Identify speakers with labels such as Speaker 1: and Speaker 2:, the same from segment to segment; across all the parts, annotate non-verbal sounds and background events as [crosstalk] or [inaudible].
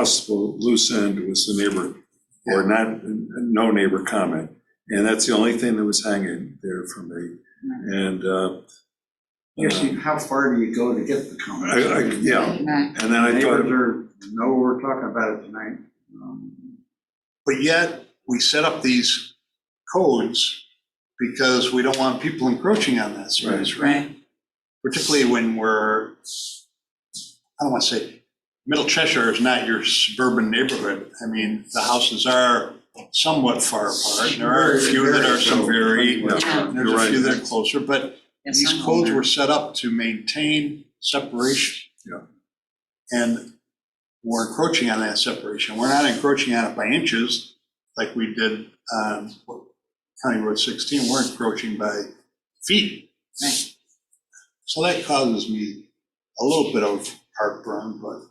Speaker 1: possible loose end was the neighbor, or not, no neighbor comment. And that's the only thing that was hanging there for me. And, uh,
Speaker 2: Actually, how far do you go to get the comments?
Speaker 1: I, I, yeah,
Speaker 3: Right.
Speaker 1: and then I thought,
Speaker 2: Neighbors are, know we're talking about it tonight. Um,
Speaker 4: But yet, we set up these codes because we don't want people encroaching on that space, right?
Speaker 3: Right,
Speaker 4: Particularly when we're, I don't want to say, Middle Cheshire is not your suburban neighborhood. I mean, the houses are somewhat far apart, and there are a few that are some very,
Speaker 1: Yeah,
Speaker 4: and
Speaker 1: you're
Speaker 4: there's a
Speaker 1: right.
Speaker 4: few that are closer, but
Speaker 3: Yes,
Speaker 4: these
Speaker 3: I'm
Speaker 4: codes
Speaker 3: older.
Speaker 4: were set up to maintain separation.
Speaker 1: Yeah.
Speaker 4: And we're encroaching on that separation. We're not encroaching on it by inches like we did on County Road 16. We're encroaching by feet.
Speaker 3: Right.
Speaker 4: So that causes me a little bit of heartburn, but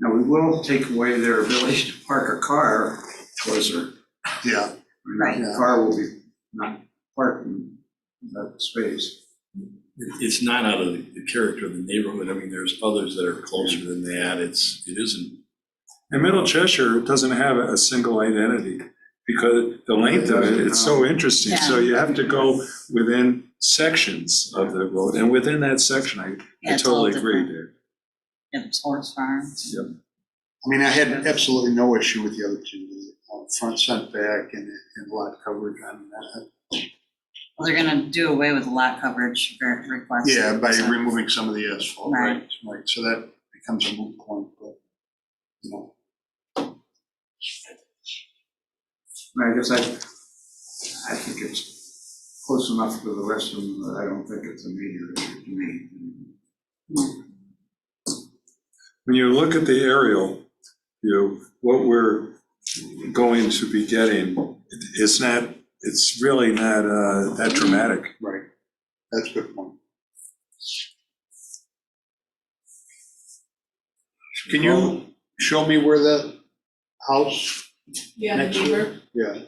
Speaker 2: Now, we will take away their ability to park a car closer.
Speaker 4: yeah,
Speaker 3: Right.
Speaker 2: The car will be not parked in that space.
Speaker 5: it- it's not out of the the character of the neighborhood. I mean, there's others that are closer than that. It's, it isn't.
Speaker 1: and Middle Cheshire doesn't have a single identity because the length of it, it's so interesting. So you have to go within sections of the road, and within that section, I- I
Speaker 3: Yeah, it's all
Speaker 1: totally agree,
Speaker 3: different.
Speaker 1: Dave.
Speaker 3: Yeah, it's horse farms.
Speaker 4: I mean, I had absolutely no issue with the other two, the uh, front setback and and lot coverage on that.
Speaker 3: Well, they're gonna do away with lot coverage ver- request.
Speaker 4: Yeah, by
Speaker 3: so-
Speaker 4: removing some of the asphalt, right, right, so that becomes a moot point, but, you know,
Speaker 2: I guess I, I think it's close enough to the rest of them that I don't think it's a major issue to me.
Speaker 1: when you look at the aerial view, what we're going to be getting, it's not, it's really not uh, that dramatic.
Speaker 4: right, that's a good point. Can you show me where the house,
Speaker 6: Yeah,
Speaker 4: Next
Speaker 6: the neighbor.
Speaker 4: yeah.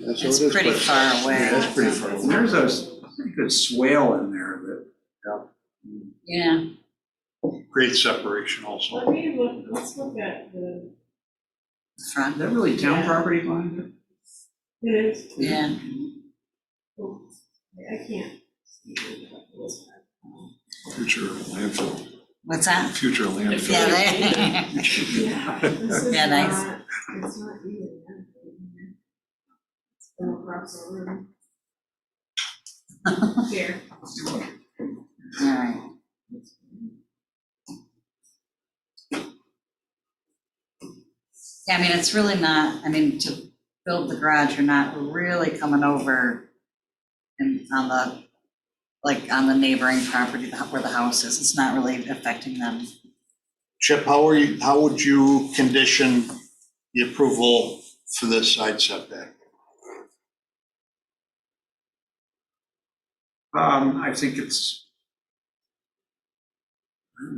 Speaker 4: That's what it
Speaker 3: It's
Speaker 4: is,
Speaker 3: pretty
Speaker 4: but-
Speaker 3: far
Speaker 4: Yeah,
Speaker 3: away.
Speaker 4: that's pretty far away.
Speaker 2: And There's a, I think a swale in there that,
Speaker 3: Yeah,
Speaker 4: Great separation also.
Speaker 6: Let me look, let's look at the,
Speaker 2: is
Speaker 3: front,
Speaker 2: that really town property behind it?
Speaker 6: it is,
Speaker 3: yeah,
Speaker 6: oh, I can't. see it, but
Speaker 4: [laughs]
Speaker 6: it's-
Speaker 1: Future landfill,
Speaker 3: what's that?
Speaker 1: future landfill.
Speaker 3: Yeah, [laughs] they-
Speaker 6: Yeah, this is
Speaker 3: Yeah, nice.
Speaker 6: not, it's not even that big. It's going across
Speaker 4: [laughs]
Speaker 6: the room. Here,
Speaker 3: all right. Yeah, I mean, it's really not, I mean, to build the garage, you're not really coming over and on the, like, on the neighboring property the- where the house is, it's not really affecting them.
Speaker 4: Chip, how are you, how would you condition the approval for this side setback?
Speaker 2: Um, I think it's,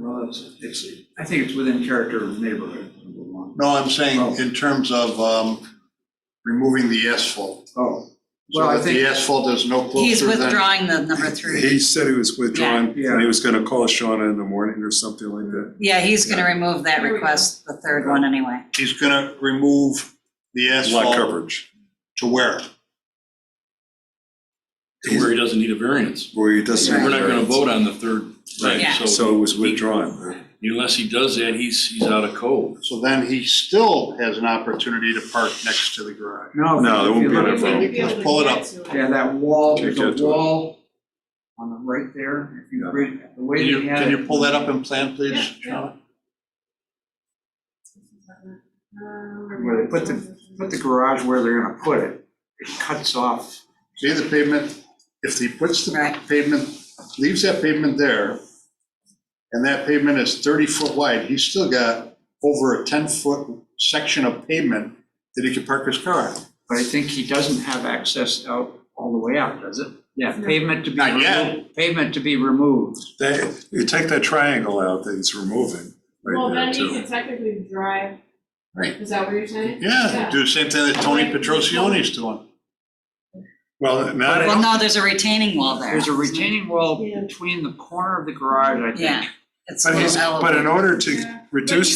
Speaker 2: well, it's, it's, I think it's within character of neighborhood, number one.
Speaker 4: No, I'm saying
Speaker 2: Oh.
Speaker 4: in terms of um, removing the asphalt.
Speaker 2: Oh,
Speaker 4: So
Speaker 2: Well, I
Speaker 4: that the
Speaker 2: think-
Speaker 4: asphalt is no
Speaker 3: He's
Speaker 4: closer than.
Speaker 3: withdrawing the number three.
Speaker 1: He said he was withdrawing,
Speaker 2: Yeah.
Speaker 1: and he was gonna call Shauna in the morning or something like that.
Speaker 3: Yeah, he's gonna remove that
Speaker 6: There we go.
Speaker 3: request, the third one anyway.
Speaker 4: He's gonna remove the
Speaker 1: Lot
Speaker 4: asphalt
Speaker 1: coverage,
Speaker 4: to where?
Speaker 5: To where he doesn't need a variance.
Speaker 1: where he doesn't.
Speaker 5: We're not gonna vote on the third
Speaker 1: Right.
Speaker 5: thing,
Speaker 3: Yeah.
Speaker 5: so
Speaker 1: So it was withdrawn.
Speaker 5: unless he does that, he's, he's out of code.
Speaker 4: So then he still has an opportunity to park next to the garage.
Speaker 2: no.
Speaker 1: No, there
Speaker 2: if you
Speaker 1: won't be
Speaker 2: look
Speaker 1: an
Speaker 2: at-
Speaker 1: problem.
Speaker 6: We'd be able to
Speaker 4: Pull it up.
Speaker 6: get to it.
Speaker 2: Yeah, that wall,
Speaker 1: Can't
Speaker 2: there's a
Speaker 1: get to it.
Speaker 2: wall on the right there, if you bring, the way
Speaker 4: Can you,
Speaker 2: they had it.
Speaker 4: can you pull that up in plan, please?
Speaker 6: Yeah, yeah.
Speaker 4: Sean?
Speaker 6: Um,
Speaker 2: Where they put the, put the garage where they're gonna put it, it cuts off.
Speaker 4: See the pavement, if he puts the
Speaker 3: Right.
Speaker 4: pavement, leaves that pavement there, and that pavement is thirty foot wide, he's still got over a ten foot section of pavement that he could park his car on.
Speaker 2: But I think he doesn't have access out all the way out, does it? Yeah,
Speaker 6: No.
Speaker 2: pavement to be
Speaker 4: Not yet.
Speaker 2: removed, pavement to be removed.
Speaker 1: That, you take that triangle out that he's removing
Speaker 6: Well,
Speaker 1: right there
Speaker 6: then you
Speaker 1: too.
Speaker 6: could technically drive.
Speaker 4: Right.
Speaker 6: Is that what you're saying?
Speaker 4: Yeah, do the same thing that Tony Petrosione's doing.
Speaker 1: Well, not,
Speaker 3: Well, no, there's a retaining wall there.
Speaker 2: There's a retaining wall
Speaker 6: Yeah.
Speaker 2: between the corner of the garage, I think.
Speaker 3: Yeah, it's a
Speaker 1: but he's,
Speaker 3: little
Speaker 1: but in
Speaker 3: elevated.
Speaker 1: order to
Speaker 6: Yeah.
Speaker 1: reduce